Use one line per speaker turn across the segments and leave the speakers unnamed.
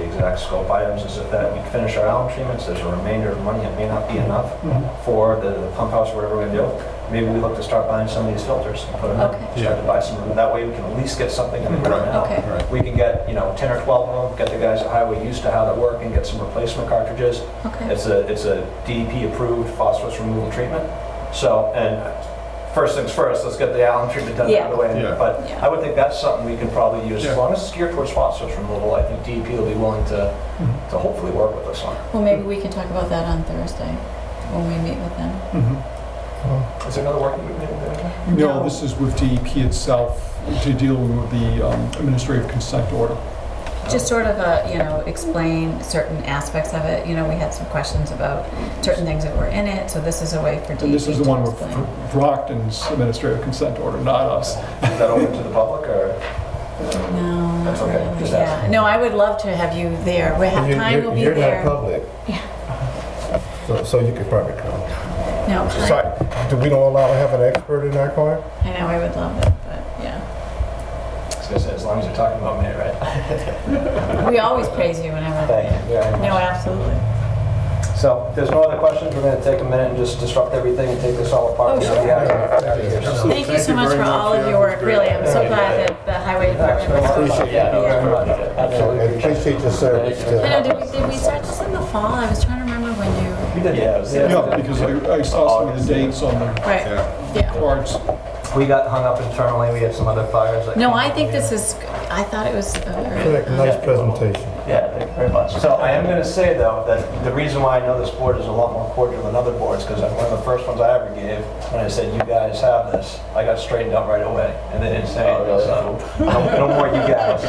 exact scope items is that we finish our alum treatments, there's a remainder of money that may not be enough
Mm-hmm.
for the the pump house, whatever we're gonna do. Maybe we look to start buying some of these filters and put them
Okay.
in, start to buy some, of them. that way we can at least get something in the ground now.
Okay.
Right.
We can get, you know, 10 or 12 of them, get the guys at Highway used to how they work and get some replacement cartridges.
Okay.
It's a, it's a DEP-approved phosphorus removal treatment. So, and first things first, let's get the alum treatment done out of the way.
Yeah. Yeah.
But
Yeah.
I would think that's something we can probably use. As
Yeah.
long as it's geared towards phosphorus removal, I think DEP will be willing to, to hopefully work with us on it.
Well, maybe we can talk about that on Thursday when we meet with them.
Is there another working group meeting there?
No.
No, Mm-hmm. this is with DEP itself to deal with the um, administrative consent order.
Just sort of, uh, you know, explain certain aspects of it. You know, we had some questions about certain things that were in it, so this is a way for DEP to
And this is the one with
explain.
Brockton's administrative consent order, not us.
Is that open to the public or?
No,
That's
not
okay,
really,
just
yeah.
ask.
No, I would love to have you there. We have,
You're-
time
you're-
will be
you're
there.
not public.
Yeah.
So, so you could probably come.
No,
Sorry, do we don't allow to have an expert in our car?
I know, I would love it, but yeah.
I was gonna say, as long as you're talking about me, right?
We always praise you whenever.
Thank you very much.
No, absolutely.
So if there's no other questions, we're gonna take a minute and just disrupt everything and take this all apart.
Oh, sure.
Yeah.
Thank you so much for all of your work, really. I'm so glad that the highway department was.
Appreciate it. Yeah, no, very much. Absolutely
And
appreciate it.
appreciate your service to
I know, did we, did we start this in the fall? I was trying to remember when you,
We did, yeah. it was-
Yeah, because I I saw some of the dates on the
right,
Yeah.
yeah.
cards.
We got hung up internally, we had some other fires that.
No,
came
I
up.
think this is, I thought it was, uh,
Correct, Nice presentation.
Yeah, thank you very much. So I am gonna say though, that the reason why I know this board is a lot more cordial than other boards, because one of the first ones I ever gave, when I said, you guys have this, I got straightened up right away, and they didn't say anything, so, no no more you guys.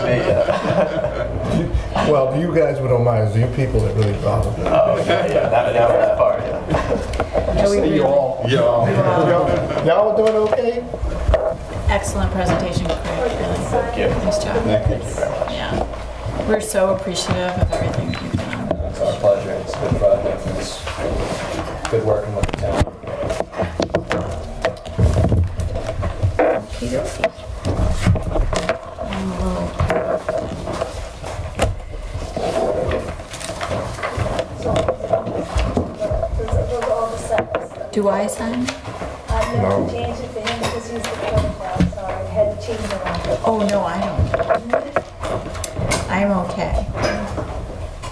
Well, you guys would don't mind, it's you people that really bother me.
Oh, yeah, yeah, that, that was part, yeah.
yeah, we
Say you
really,
all.
Yeah.
Y'all y'all doing okay?
excellent presentation, Craig, really.
Thank you.
Nice job,
Thank you very much.
yeah. We're so appreciative of everything that you've done.
It's our pleasure, it's a good project, it's good working with the town.
Those are all the steps.
Do I sign?
I
No.
never changed it to him because he's the protocol, so I had to change it around.
Oh, no, I don't. I'm okay,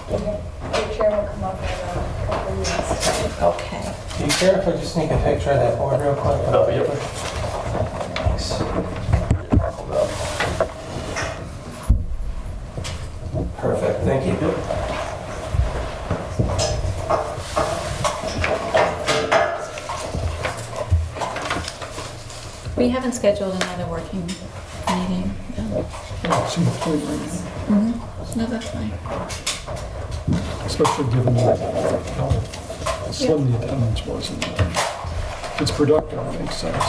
The chair will come up in a couple of weeks.
okay.
Do you care if I just sneak a picture of that board real quick?
Oh, yep.
Thanks. Perfect, thank you.
We haven't scheduled another working meeting. though. No, that's fine.
Especially given how slim the attendance was. and, um, It's productive, it makes sense.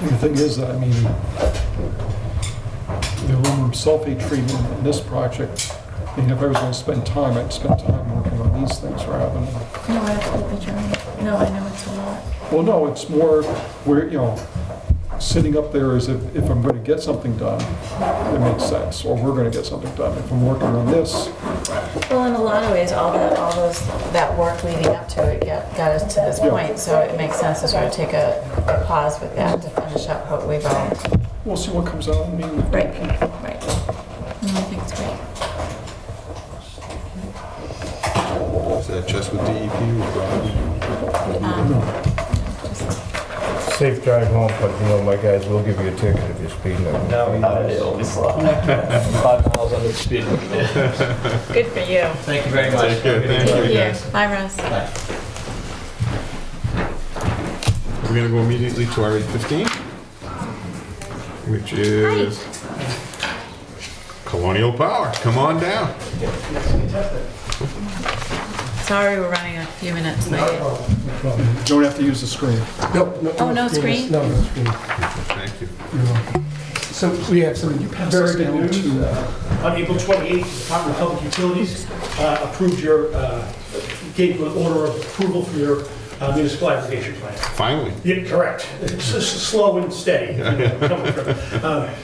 And The thing is, I mean, the aluminum sulfate treatment in this project, I mean, if I was going to spend time, I'd spend time working on these things rather than
No, absolutely, John. No, I know it's a lot.
well, no, it's more, where, you know, sitting up there is if, if I'm gonna get something done, it makes sense, or we're gonna get something done. If I'm working on this,
Well, in a lot of ways, all that, all those, that work leading up to it got, got us to this point, so it makes sense to sort of take a pause with that to finish up what we've all.
we'll see what comes out. I mean,
Right, right. No, I think it's great.
Is that just with E DEP or
Um,
Safe drive home, but you know, my guys will give you a ticket if you're speeding. up.
No, not at all, it's like five miles under the speed limit.
Good for you.
Thank you very much.
Thank you, guys.
Bye, Russ.
We're gonna go immediately to our 8:15, which is Colonial Power. Come on down.
Sorry, we're running a few minutes late.
Don't have to use the screen.
Oh, no screen?
No, no, screen.
Thank you.
So we have some very good
down
news.
to-
Uh, On April 28th, the Department of Public Utilities uh, approved your, uh, gave you an order of approval for your uh, municipal aggregation plan.
Finally.
Yeah, correct. It's s- slow and steady. you know, coming from- uh,